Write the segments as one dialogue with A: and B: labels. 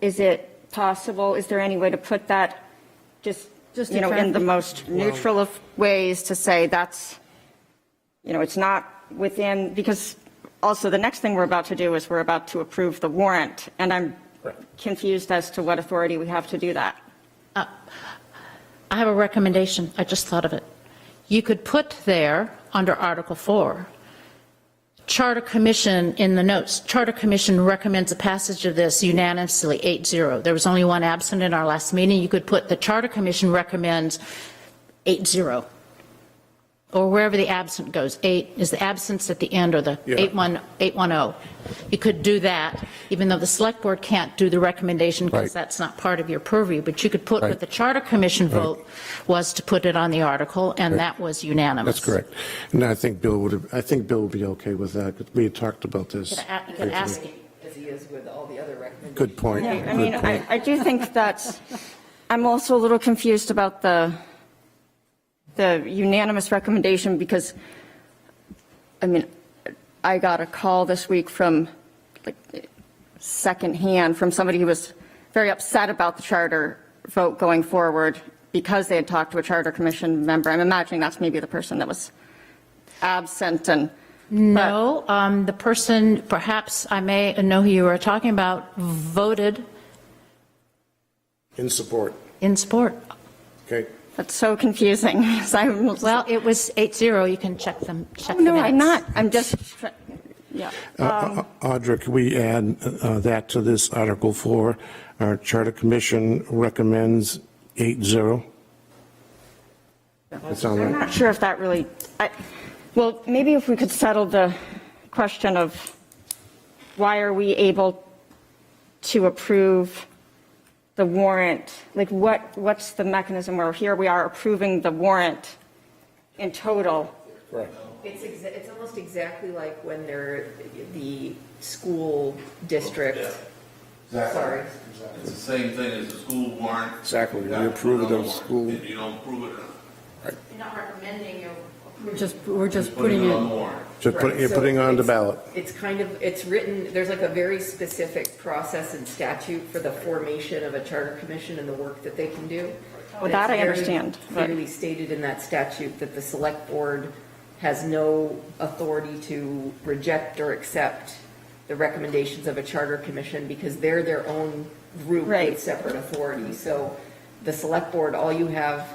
A: Is it possible, is there any way to put that, just,
B: Just
A: you know, in the
B: attractive.
A: most neutral of ways to say that's, you know, it's not within, because also the next thing we're about to do is we're about to approve the warrant, and I'm confused as to what authority we have to do that.
B: I have a recommendation, I just thought of it. You could put there, under Article 4, Charter Commission in the notes, Charter Commission recommends the passage of this unanimously, 8-0. There was only one absent in our last meeting. You could put the Charter Commission recommends 8-0, or wherever the absent goes. 8 is the absence at the end, or the
C: Yeah.
B: 8-1, 8-1-0. oh? You could do that, even though the Select Board can't do the recommendation because
C: Right.
B: that's not part of your purview, but you could put
C: Right.
B: what the Charter Commission
C: Right.
B: vote was to put it on the article, and
C: Right.
B: that was unanimous.
C: That's correct. And I think Bill would, have- I think Bill would be okay with that, 'cause we had talked about this.
B: You could a- you could ask it.
D: as he is with all the other recommendations.
C: Good point.
A: Yeah, I
C: good
A: mean, I,
C: point.
A: I do think that's, I'm also a little confused about the, the unanimous recommendation because, I mean, I got a call this week from, like, secondhand from somebody who was very upset about the charter vote going forward because they had talked to a charter commission member. I'm imagining that's maybe the person that was absent and.
B: No, um, the person, perhaps I may know who you are talking about, voted
C: In support,
B: in support.
C: okay?
A: That's so confusing. So I'm just-
B: Well, Oh, it was 8-0, you can check them, check the
A: No, I'm
B: minutes.
A: not. I'm just, try- yeah. Um,
C: Uh, Au- Audra, can we add uh, that to this Article 4? Our Charter Commission recommends 8-0. That sound
A: I'm
C: right?
A: not sure if that really, I, well, maybe if we could settle the question of why are we able to approve the warrant? Like what, what's the mechanism where here we are approving the warrant in total?
D: It's, exa- it's almost exactly like when they're the school district, sorry.
E: It's the same thing as the school warrant.
F: Exactly, we
E: That's
F: approve of
E: another
F: those
E: warrant.
F: school-
E: If you don't approve it,
B: You're not recommending your
G: We're just, we're just
E: just put it
G: putting
E: on
G: it,
E: the warrant.
C: So put- you're
D: So
C: putting on the
D: it's-
C: ballot.
D: It's kind of, it's written, there's like a very specific process and statute for the formation of a charter commission and the work that they can do.
A: Well,
D: And
A: that
D: it's
A: I
D: very
A: understand, but-
D: Clearly stated in that statute that the select board has no authority to reject or accept the recommendations of a charter commission because they're their own group
A: Right.
D: with separate authority. So the select board, all you have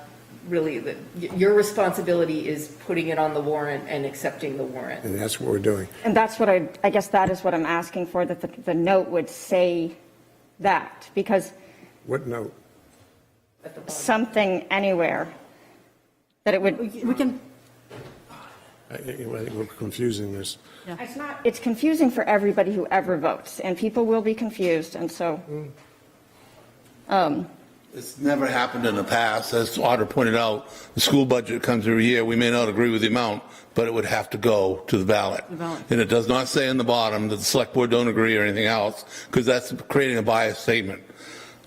D: really, the- y- your responsibility is putting it on the warrant and accepting the warrant.
C: And that's what we're doing.
A: And that's what I, I guess that is what I'm asking for, that the, the note would say that, because
C: What note?
A: something anywhere, that it would.
G: we can,
C: I I think we're confusing this.
A: It's not, it's confusing for everybody who ever votes, and people will be confused, and so,
E: It's never happened in the past, as Otter pointed out, the school budget comes every year, we may not agree with the amount, but it would have to go to the ballot. And it does not say in the bottom that the select board don't agree or anything else, because that's creating a biased statement.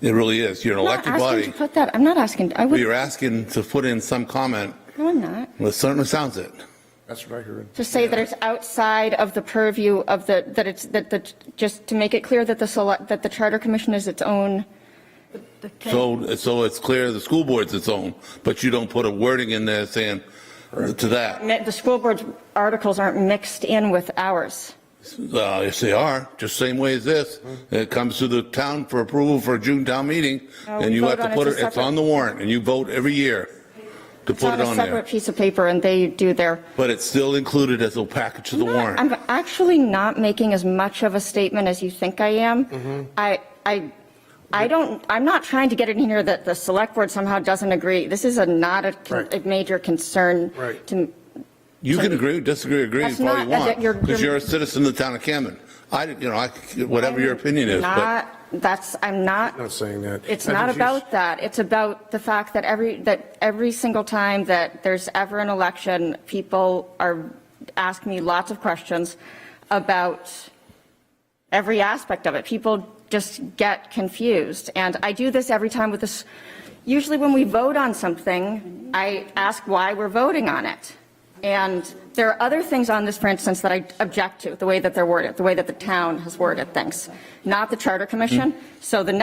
E: It really is, you're an
A: I'm not
E: elected
A: asking to
E: body,
A: put that, I'm not asking, I
E: but
A: would,
E: you're asking to put in some comment,
A: no, I'm not.
E: well, it certainly sounds it.
C: That's what I heard.
A: To say that it's outside of the purview of the, that it's, that the, just to make it clear that the select, that the charter commission is its own,
E: So, so it's clear the school board's its own, but you don't put a wording in there saying to that.
A: the school board's articles aren't mixed in with ours.
E: Uh, yes, they are, just same way as this.
A: Mm-hmm.
E: It comes to the town for approval for a June town meeting,
A: No, Uh, we
E: and you have
A: vote on
E: to
A: it
E: put
A: as
E: it,
A: a
E: it's on
A: separate-
E: the warrant, and you vote every year to
A: It's
E: put
A: on
E: it
A: a
E: on
A: separate
E: there.
A: piece of paper, and they do their.
E: But it's still included as a package to the
A: No,
E: warrant.
A: I'm actually not making as much of a statement as you think I am.
E: Mm-hmm.
A: I, I, I don't, I'm not trying to get it in here that the select board somehow doesn't agree. This is a not a, con-
C: Right.
A: a major concern.
C: Right.
A: to-
E: You can agree, disagree, agree,
A: That's
E: if all
A: not-
E: you
A: that-
E: want,
A: you're-
E: because
A: you're-
E: you're a citizen of the town of Camden. I, you know, I, whatever your opinion is, but
A: Not, that's, I'm not.
C: Not saying that.
A: It's
C: I
A: not
C: think you s-
A: about that. It's about the fact that every, that every single time that there's ever an election, people are, ask me lots of questions about every aspect of it. People just get confused. And I do this every time with this, usually when we vote on something, I ask why we're voting on it. And there are other things on this, for instance, that I object to, the way that they're worded, the way that the town has worded things, not the charter commission. So the